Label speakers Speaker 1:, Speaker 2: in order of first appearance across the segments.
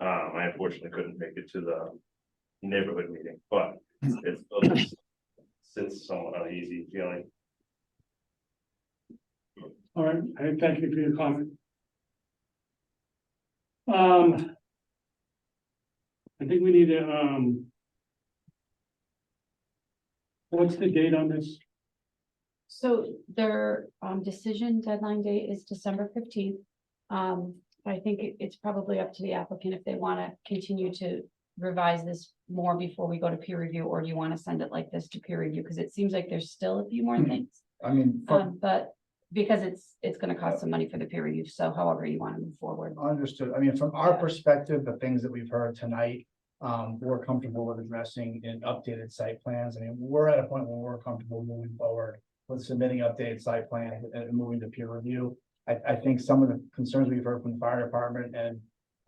Speaker 1: Um, unfortunately couldn't make it to the neighborhood meeting, but it's, it's since somewhat uneasy feeling.
Speaker 2: All right, I thank you for your comment. Um. I think we need to, um. What's the date on this?
Speaker 3: So their um decision deadline date is December fifteenth. Um, I think it- it's probably up to the applicant if they wanna continue to revise this more before we go to peer review, or do you wanna send it like this to peer review? Cause it seems like there's still a few more things.
Speaker 4: I mean, fuck,
Speaker 3: Um, but because it's, it's gonna cost some money for the peer review, so however you wanna move forward.
Speaker 4: understood. I mean, from our
Speaker 3: Yeah.
Speaker 4: perspective, the things that we've heard tonight, um, we're comfortable with addressing in updated site plans. I mean, we're at a point where we're comfortable moving forward with submitting updated site plans and moving to peer review. I, I think some of the concerns we've heard from the fire department and,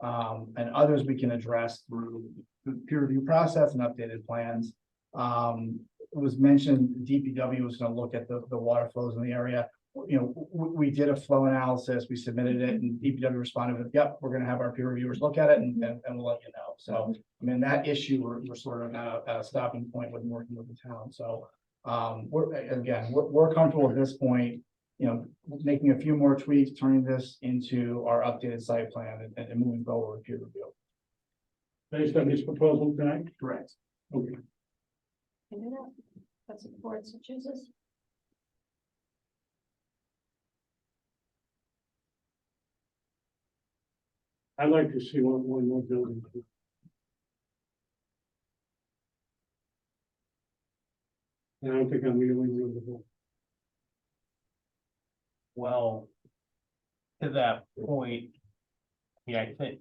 Speaker 4: um, and others we can address through the peer review process and updated plans. Um, it was mentioned DPW was gonna look at the, the water flows in the area. You know, we, we did a flow analysis, we submitted it and DPW responded with, yep, we're gonna have our peer reviewers look at it and, and and we'll let you know. So, I mean, that issue, we're, we're sort of at a, at a stopping point with working with the town, so. Um, we're, again, we're, we're comfortable at this point, you know, making a few more tweaks, turning this into our updated site plan and, and moving forward with peer review.
Speaker 2: Based on this proposal tonight?
Speaker 4: Correct.
Speaker 2: Okay,
Speaker 3: That's what the board so chooses.
Speaker 2: I'd like to see one, one more building. And I don't think I'm really with the board.
Speaker 5: Well. To that point. Yeah, I think,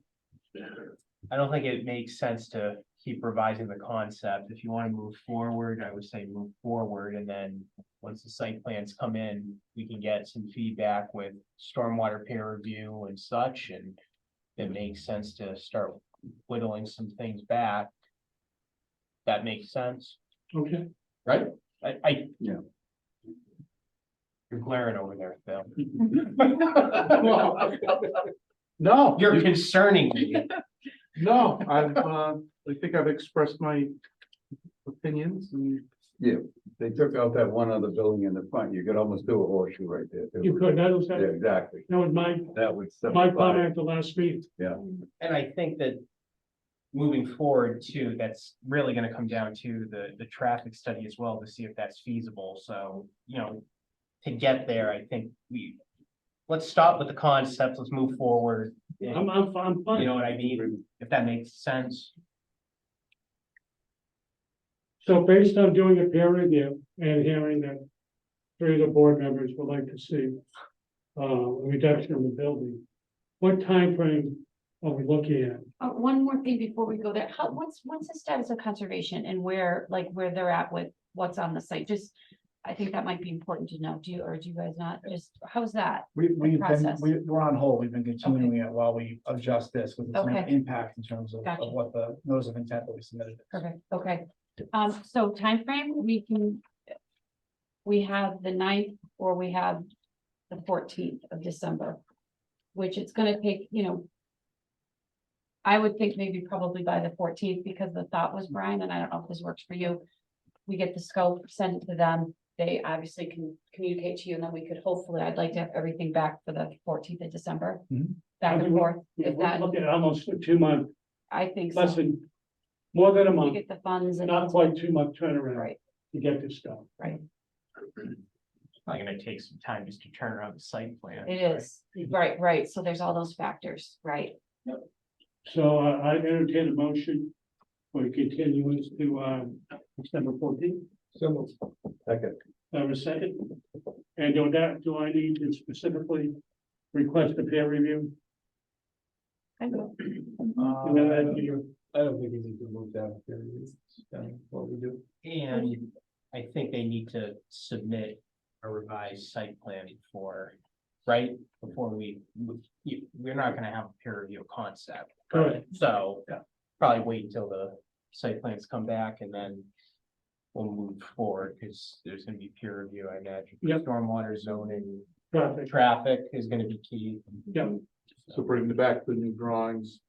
Speaker 5: I don't think it makes sense to keep revising the concept. If you want to move forward, I would say move forward and then. Once the site plans come in, we can get some feedback with stormwater peer review and such and. It makes sense to start whittling some things back. That makes sense.
Speaker 2: Okay,
Speaker 5: I, I.
Speaker 4: Yeah.
Speaker 5: You're glaring over there, Phil.
Speaker 6: No,
Speaker 5: You're
Speaker 6: you-
Speaker 5: concerning me.
Speaker 6: no, I've, uh, I think I've expressed my opinions and
Speaker 7: They took out that one other building in the front, you could almost do a horseshoe right there. too.
Speaker 2: you could, that was,
Speaker 7: Yeah,
Speaker 2: that
Speaker 7: exactly,
Speaker 2: was my,
Speaker 7: that would.
Speaker 2: my
Speaker 7: simplify it.
Speaker 2: comment at the last meeting.
Speaker 5: And I think that moving forward too, that's really gonna come down to the, the traffic study as well to see if that's feasible. So, you know, to get there, I think we, let's stop with the concept, let's move forward.
Speaker 2: I'm,
Speaker 5: You
Speaker 2: I'm, I'm fine.
Speaker 5: know what I mean? If that makes sense.
Speaker 2: So based on doing a peer review and hearing that three of the board members would like to see uh, a reduction in the building, what time frame are we looking at?
Speaker 3: Uh, one more thing before we go there, how, what's, what's the status of conservation and where, like, where they're at with what's on the site, just. I think that might be important to know, do you, or do you guys not, just, how's that?
Speaker 4: We, we've been,
Speaker 3: process.
Speaker 4: we, we're on hold, we've been continuing it while we adjust this, with it's no
Speaker 3: Okay.
Speaker 4: impact in terms of,
Speaker 3: Gotcha.
Speaker 4: of what the notice of intent that we submitted.
Speaker 3: Perfect, okay, um, so timeframe, we can. We have the ninth or we have the fourteenth of December, which it's gonna take, you know. I would think maybe probably by the fourteenth, because the thought was Brian, and I don't know if this works for you. We get the scope, send it to them, they obviously can communicate to you, and then we could hopefully, I'd like to have everything back for the fourteenth of December.
Speaker 4: Mhm.
Speaker 3: Back and forth, if
Speaker 2: We're
Speaker 3: that,
Speaker 2: looking at almost a two month,
Speaker 3: I think
Speaker 2: less
Speaker 3: so,
Speaker 2: than, more than a
Speaker 3: we
Speaker 2: month,
Speaker 3: get the funds and.
Speaker 2: not quite two month turnaround
Speaker 3: Right,
Speaker 2: to get this done.
Speaker 3: right,
Speaker 5: Probably gonna take some time just to turn around the site plan.
Speaker 3: it is. Right, right, so there's all those factors, right?
Speaker 2: So uh, I entertain a motion for continuance to, um, December fourteenth,
Speaker 7: Second,
Speaker 2: have a second. And do that, do I need to specifically request a peer review?
Speaker 3: I know.
Speaker 2: And then add to your-
Speaker 4: Uh, think you need to move down here, what we do.
Speaker 5: And I think they need to submit a revised site plan before, right? Before we, we- we're not gonna have a peer review concept.
Speaker 2: Correct.
Speaker 5: So
Speaker 4: Yeah.
Speaker 5: probably wait until the site plans come back and then we'll move forward, because there's gonna be peer review, I imagine.
Speaker 2: Yep.
Speaker 5: Stormwater zoning,
Speaker 2: Perfect.
Speaker 5: traffic is gonna be key.
Speaker 2: Yeah.
Speaker 6: so bring the back the new drawings